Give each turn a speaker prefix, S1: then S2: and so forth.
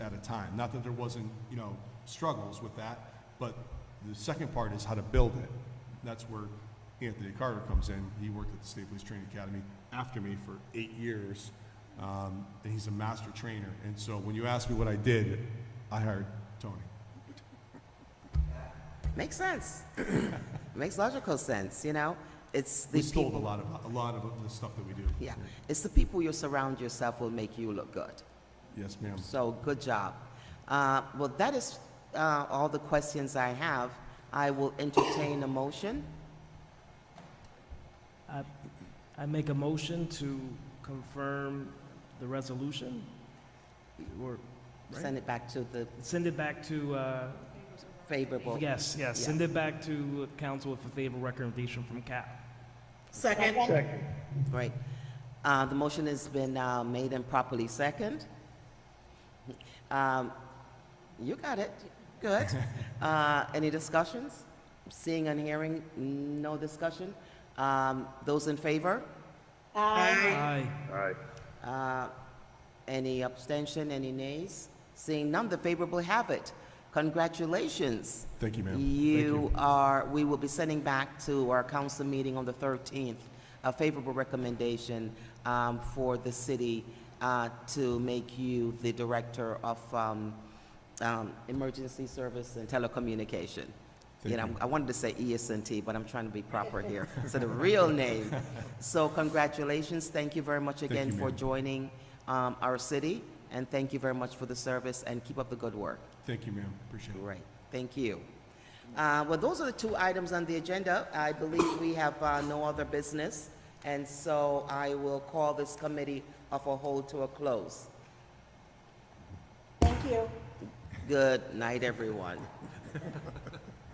S1: time. Not that there wasn't, you know, struggles with that, but the second part is how to build it. That's where Anthony Carter comes in. He worked at the State Police Training Academy after me for eight years, um, and he's a master trainer. And so when you ask me what I did, I hired Tony.
S2: Makes sense. Makes logical sense, you know? It's the
S1: We stole a
S2: people,
S1: lot of, a lot of the stuff that we do.
S2: yeah, it's the people you surround yourself will make you look good.
S1: Yes, ma'am.
S2: So, good job. Uh, Well, that is uh, all the questions I have. I will entertain a motion.
S3: I, I make a motion to confirm the resolution, or Right.
S2: Send it back to the
S3: send it back to, uh,
S2: favorable.
S3: yes, yes,
S2: yeah.
S3: send it back to council with a favorable recommendation from CAP.
S2: Second. Great. Uh, The motion has been uh, made and properly second. Um, You got it. Good. Uh, Any discussions? Seeing and hearing, no discussion. Um, Those in favor?
S3: Aye.
S2: Uh, Any abstention, any nays? Seeing none, the favorable have it. Congratulations.
S1: Thank you, ma'am. Thank
S2: You are, we will be sending back to our council meeting on the 13th, a favorable recommendation um, for the city uh, to make you the director of um, um, emergency service and telecommunication. You know, I wanted to say E ESNT, but I'm trying to be proper here, so the real name. So congratulations, thank you very much again
S1: you,
S2: for
S1: ma'am.
S2: joining um, our city, and thank you very much for the service, and keep up the good work.
S1: Thank you, ma'am. Appreciate it.
S2: Great, thank you. Uh, Well, those are the two items on the agenda. I believe we have uh, no other business, and so I will call this committee of a whole to a close.
S4: Thank you.
S2: Good night, everyone.